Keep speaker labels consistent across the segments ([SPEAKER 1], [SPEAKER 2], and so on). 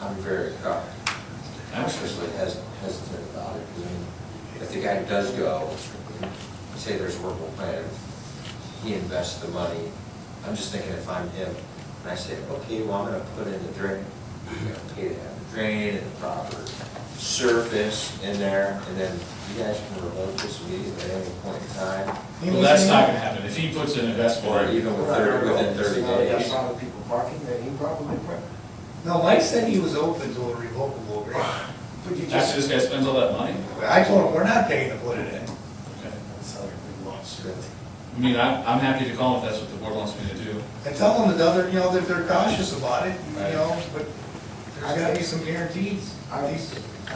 [SPEAKER 1] I'm very, uh, cautiously hes- hesitant about it. 'cause I mean, If the guy does go, say there's a workable plan, he invests the money. I'm just thinking if I'm him, and I say, okay, well, I'm gonna put in the drain, you know, pay to have the drain and the proper surface in there, and then you guys can revoke this immediately at any point in time.
[SPEAKER 2] Well, that's not gonna happen. If he puts in a vest
[SPEAKER 1] Or
[SPEAKER 2] warrant,
[SPEAKER 1] even with thirty, within thirty
[SPEAKER 3] There's
[SPEAKER 1] days.
[SPEAKER 3] a lot of people parking there, he probably, parked.
[SPEAKER 4] No, Mike said he was open to a revocable agreement.
[SPEAKER 3] but you
[SPEAKER 2] after
[SPEAKER 3] just,
[SPEAKER 2] this guy spends all that money,
[SPEAKER 4] I told him, we're not paying to put it in.
[SPEAKER 2] okay.
[SPEAKER 1] So,
[SPEAKER 2] I mean, I, I'm happy to call if that's what the board wants me to do.
[SPEAKER 4] And tell them that other, you know, that they're cautious about it, you
[SPEAKER 2] Right.
[SPEAKER 4] know, but there's gotta be some guarantees.
[SPEAKER 3] I'm,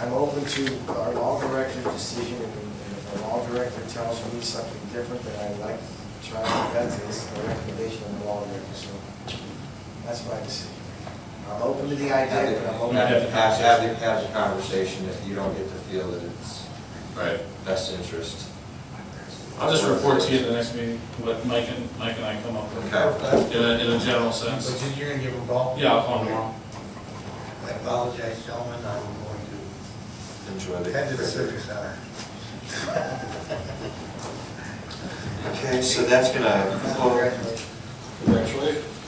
[SPEAKER 3] I'm open to our law director's decision, and and if the law director tells me something different, then I'd like to try to vet this, the recommendation of the law director, so that's my decision. I'm open to the
[SPEAKER 1] Have
[SPEAKER 3] idea,
[SPEAKER 1] the-
[SPEAKER 3] but
[SPEAKER 2] Not
[SPEAKER 3] I'm open,
[SPEAKER 2] have
[SPEAKER 1] have,
[SPEAKER 2] the
[SPEAKER 1] have the, have the conversation if you don't get to feel that it's
[SPEAKER 2] Right.
[SPEAKER 1] best interest.
[SPEAKER 2] I'll just report to you at the next meeting, what Mike and, Mike and I come up with,
[SPEAKER 1] Okay.
[SPEAKER 2] in a, in a general
[SPEAKER 4] But
[SPEAKER 2] sense.
[SPEAKER 4] then you're gonna give them a call?
[SPEAKER 2] Yeah, I'll call him tomorrow.
[SPEAKER 4] I apologize, gentlemen, I'm going
[SPEAKER 1] Enjoy
[SPEAKER 4] to
[SPEAKER 1] the.
[SPEAKER 4] attend to the service hour.
[SPEAKER 1] Okay, so that's gonna close,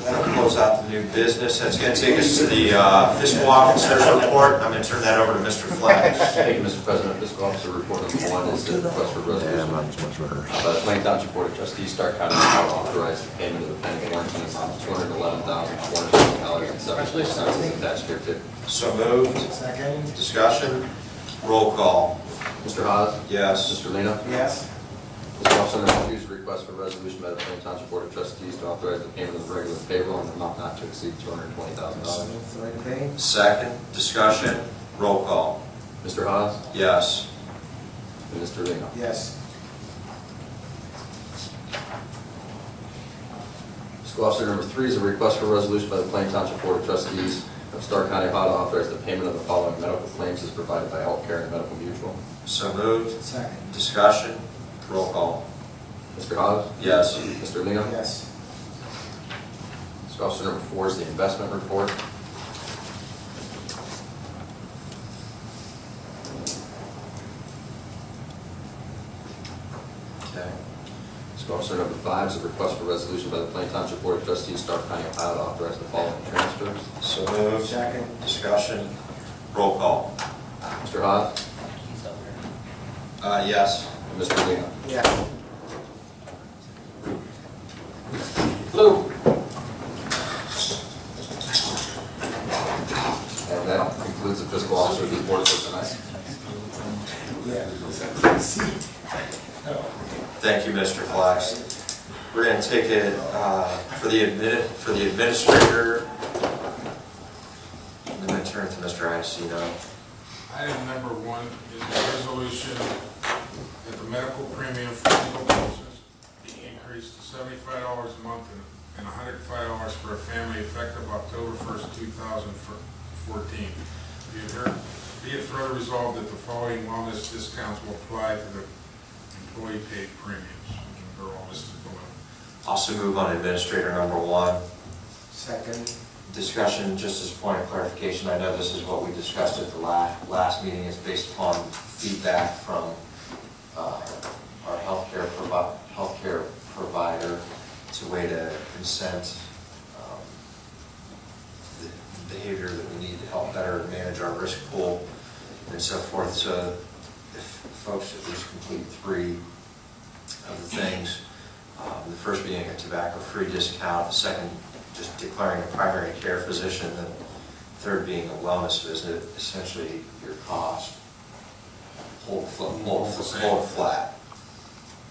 [SPEAKER 1] that'll close out the new business. That's gonna take us to the uh, fiscal officer's report. I'm gonna turn that over to Mr. Flash.
[SPEAKER 5] Thank you, Mr. President. Fiscal Officer report number one is the request for resolution. Uh, By the Plain Township Board of Trustees, Stark County, Ohio, authorize the payment of the pending warrants in the amount of two hundred eleven thousand, four hundred seven dollars and seventy-four cents as attached here too.
[SPEAKER 1] So moved.
[SPEAKER 3] second,
[SPEAKER 1] Discussion, roll call.
[SPEAKER 5] Mr. Haas,
[SPEAKER 1] Yes.
[SPEAKER 5] Mr. Lena.
[SPEAKER 3] yes,
[SPEAKER 5] Fiscal Officer number two is a request for resolution by the Plain Township Board of Trustees to authorize the payment of the regular payroll in the amount not to exceed two hundred twenty thousand dollars.
[SPEAKER 3] third thing,
[SPEAKER 1] Second, discussion, roll call.
[SPEAKER 5] Mr. Haas
[SPEAKER 1] Yes.
[SPEAKER 5] and Mr. Lena.
[SPEAKER 3] yes,
[SPEAKER 5] Fiscal Officer number three is a request for resolution by the Plain Township Board of Trustees of Stark County, Ohio, to authorize the payment of the following medical claims as provided by Health Care and Medical Mutual.
[SPEAKER 1] So moved.
[SPEAKER 3] second,
[SPEAKER 1] Discussion, roll call.
[SPEAKER 5] Mr. Haas,
[SPEAKER 1] Yes.
[SPEAKER 5] Mr. Lino.
[SPEAKER 3] yes,
[SPEAKER 5] Fiscal Officer number four is the investment report.
[SPEAKER 1] Okay.
[SPEAKER 5] Fiscal Officer number five is a request for resolution by the Plain Township Board of Trustees, Stark County, Ohio, to authorize the following transfers.
[SPEAKER 1] So moved.
[SPEAKER 3] second,
[SPEAKER 1] Discussion, roll call.
[SPEAKER 5] Mr. Haas
[SPEAKER 1] Uh, yes.
[SPEAKER 5] and Mr. Lino.
[SPEAKER 3] yeah.
[SPEAKER 5] Lou. And that concludes the Fiscal Officer's report for tonight.
[SPEAKER 1] Thank you, Mr. Flax. We're going to take it uh, for the admin, for the administrator. I'm going to turn it to Mr. Iacino.
[SPEAKER 6] Item number one is a resolution that the medical premium for legal purposes be increased to seventy-five dollars a month and- and hundred and five dollars for a family effective October first, two thousand fourteen. Be it her- be it further resolved that the following wellness discounts will apply to the employee paid premiums. They're all listed below.
[SPEAKER 1] Also move on administrator number one.
[SPEAKER 3] Second,
[SPEAKER 1] Discussion, just as a point of clarification, I know this is what we discussed at the last, last meeting, is based upon feedback from uh, our healthcare provi, healthcare provider. It's a way to incent um, the behavior that we need to help better manage our risk pool and so forth. So if folks at least complete three of the things. Um, The first being a tobacco-free discount, the second just declaring a primary care physician, the third being a wellness visit, essentially your cost, hold, fl- hold, fl- hold flat.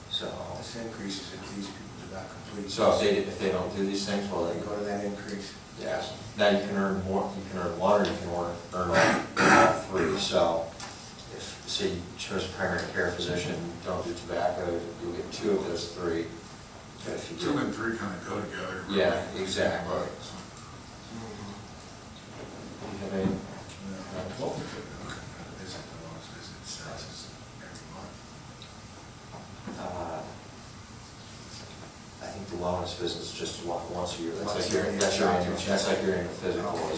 [SPEAKER 1] So,
[SPEAKER 3] this increases if these people do not complete.
[SPEAKER 1] so if they, if they don't do these things, well,
[SPEAKER 3] They
[SPEAKER 1] they
[SPEAKER 3] go
[SPEAKER 1] go,
[SPEAKER 3] to that increase.
[SPEAKER 1] yes. Now you can earn more, you can earn one, or you can earn, earn all- earn all three. So if, say you chose a primary care physician, don't do tobacco, you'll get two of those three. But if you do-
[SPEAKER 6] Two and three kind of go together.
[SPEAKER 1] Yeah, exactly. You have any- uh, I think the wellness business is just one- once a year. That's
[SPEAKER 3] Once
[SPEAKER 1] like
[SPEAKER 3] a
[SPEAKER 1] your,
[SPEAKER 3] year.
[SPEAKER 1] that's your annual, that's like your annual physical.